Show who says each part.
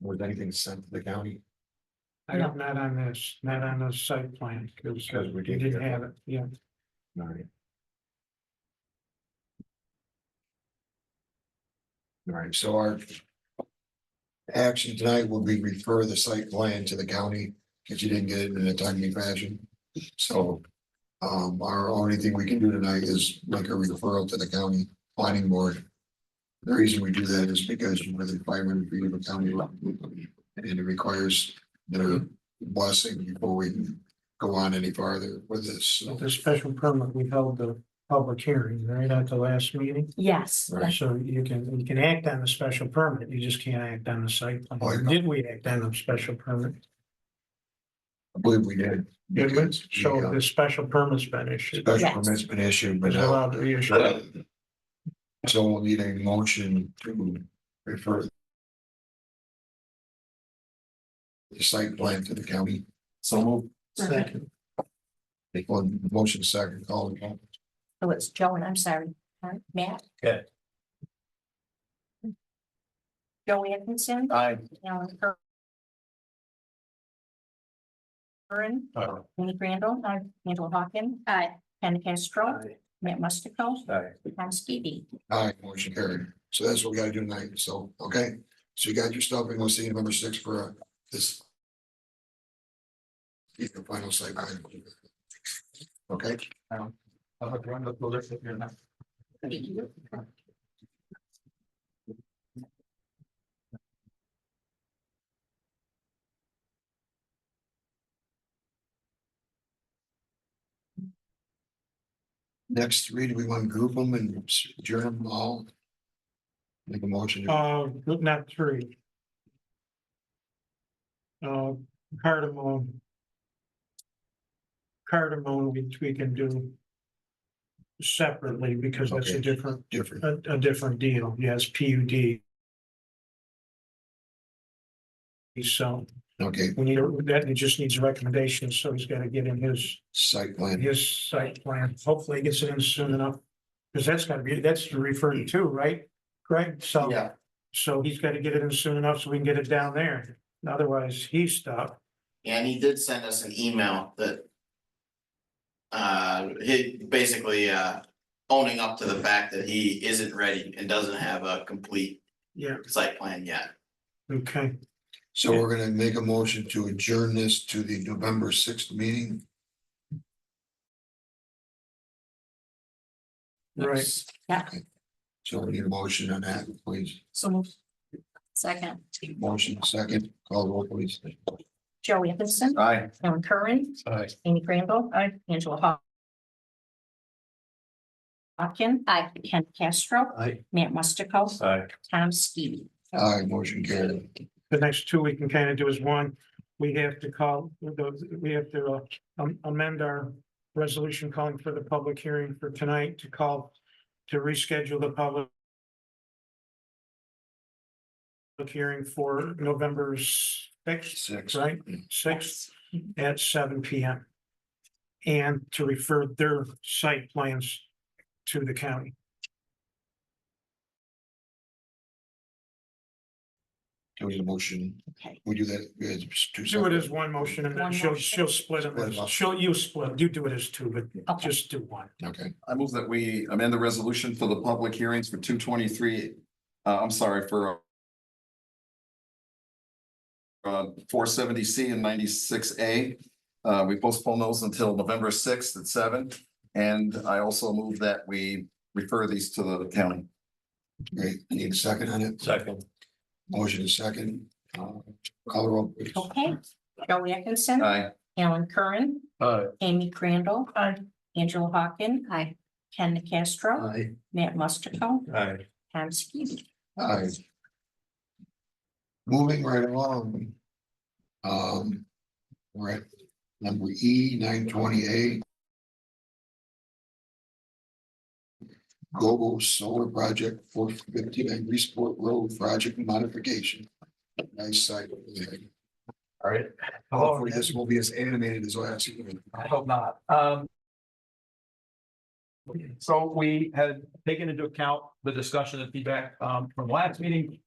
Speaker 1: was anything sent to the county?
Speaker 2: I don't, not on this, not on the site plan, because
Speaker 1: Because we
Speaker 2: we
Speaker 1: didn't
Speaker 2: didn't
Speaker 1: get it.
Speaker 2: have it, yeah.
Speaker 1: All right. All right, so our. Action tonight will be refer the site plan to the county, because you didn't get it in a timely fashion, so. Um, our only thing we can do tonight is make a referral to the county planning board. The reason we do that is because we're the requirement of the county law, and it requires their blessing before we can go on any farther with this, so.
Speaker 2: With the special permit, we held the public hearing right at the last meeting.
Speaker 3: Yes,
Speaker 1: Right.
Speaker 2: So you can, you can act on the special permit, you just can't act on the site
Speaker 1: Oh, yeah.
Speaker 2: plan. Did we act on the special permit?
Speaker 1: I believe we did.
Speaker 2: Did we? So
Speaker 1: Yeah.
Speaker 2: the special permit's been issued.
Speaker 1: Special
Speaker 3: Yes.
Speaker 1: permit's been issued, but
Speaker 2: It's
Speaker 1: now,
Speaker 2: allowed to be issued.
Speaker 1: so we'll need a motion to refer. The site plan to the county. So move.
Speaker 3: Second.
Speaker 1: Make one motion second, call it. out.
Speaker 3: oh, it's Joan, I'm sorry, Huh? Matt?
Speaker 4: Okay.
Speaker 3: Joe Atkinson,
Speaker 4: Aye.
Speaker 3: Alan Cur- Curran, Amy Crandall, aye, Angela Hawken. Aye. Ken Castro, Matt Mustico,
Speaker 4: Aye.
Speaker 3: Tom Skibby.
Speaker 1: Aye, motion carried. So that's what we gotta do tonight. So, okay, so you got your stuff and we'll see you November six for uh, this. Get the final site plan. Okay?
Speaker 4: I'll have to run the bullets if you're not.
Speaker 1: Next three, do we want to group them and adjourn them all? Make a motion. to-
Speaker 2: Uh, not three. Uh, cardamom. Cardamom, which we can do. Separately, because that's a
Speaker 1: Okay.
Speaker 2: different,
Speaker 1: Different,
Speaker 2: a, a different deal, yes, P U D. So,
Speaker 1: okay,
Speaker 2: we need, that just needs recommendations, so he's gotta get in his,
Speaker 1: site plan,
Speaker 2: his site plan, hopefully he gets it in soon enough. Cause that's gotta be, that's referred to, right, Greg, so.
Speaker 4: Yeah,
Speaker 2: So he's gotta get it in soon enough so we can get it down there. Otherwise, he's stuck.
Speaker 5: And he did send us an email that. Uh, he basically, uh, owning up to the fact that he isn't ready and doesn't have a complete
Speaker 2: Yeah.
Speaker 5: site plan yet.
Speaker 2: Okay,
Speaker 1: so we're gonna make a motion to adjourn this to the November sixth meeting.
Speaker 2: right.
Speaker 1: So we need a motion on that, please,
Speaker 3: So moved. Second,
Speaker 1: motion second, call roll please.
Speaker 3: Joe Atkinson,
Speaker 4: aye.
Speaker 3: Alan Curran,
Speaker 4: Aye.
Speaker 3: Amy Crandall, aye, Angela Haw. Hawken. Aye. Ken Castro,
Speaker 4: Aye.
Speaker 3: Matt Mustico,
Speaker 4: Aye.
Speaker 3: Tom Skibby.
Speaker 1: Aye, motion carried,
Speaker 2: The next two we can kind of do is one, we have to call, we have to uh, am- amend our resolution calling for the public hearing for tonight to call to reschedule the public public hearing for November sixth,
Speaker 1: six.
Speaker 2: right? Sixth at seven P M. And to refer their site plans to the county.
Speaker 1: Do we need a motion,
Speaker 3: Okay,
Speaker 1: we do that, we had two.
Speaker 2: Do it
Speaker 1: separate.
Speaker 2: as one motion and then
Speaker 3: One
Speaker 2: she'll,
Speaker 3: motion.
Speaker 2: she'll split
Speaker 1: Split it
Speaker 2: it.
Speaker 1: up.
Speaker 2: She'll, you split, it. you do it as two, but
Speaker 3: Okay.
Speaker 2: just do one.
Speaker 1: Okay,
Speaker 6: I move that we amend the resolution for the public hearings for two twenty-three, uh, I'm sorry, for uh, four seventy C and ninety-six A. Uh, we postpone those until November sixth at seven, and I also move that we refer these to the county.
Speaker 1: great, need a second on it,
Speaker 4: Second.
Speaker 1: motion second, uh, call roll please.
Speaker 3: okay, Joe Atkinson,
Speaker 6: Aye.
Speaker 3: Alan Curran,
Speaker 4: Aye.
Speaker 3: Amy Crandall, aye, Angela Hawken, aye, Ken Castro,
Speaker 4: Aye.
Speaker 3: Matt Mustico,
Speaker 4: Aye.
Speaker 3: Tom Skibby.
Speaker 1: Aye. Moving right along. Um. We're at number E nine twenty-eight. Global Solar Project four fifty and Resport Road Project Modification. Nice site.
Speaker 4: All right.
Speaker 1: Hopefully this will be as animated as last year.
Speaker 4: I hope not. Um. So we had taken into account the discussion and feedback um from last meeting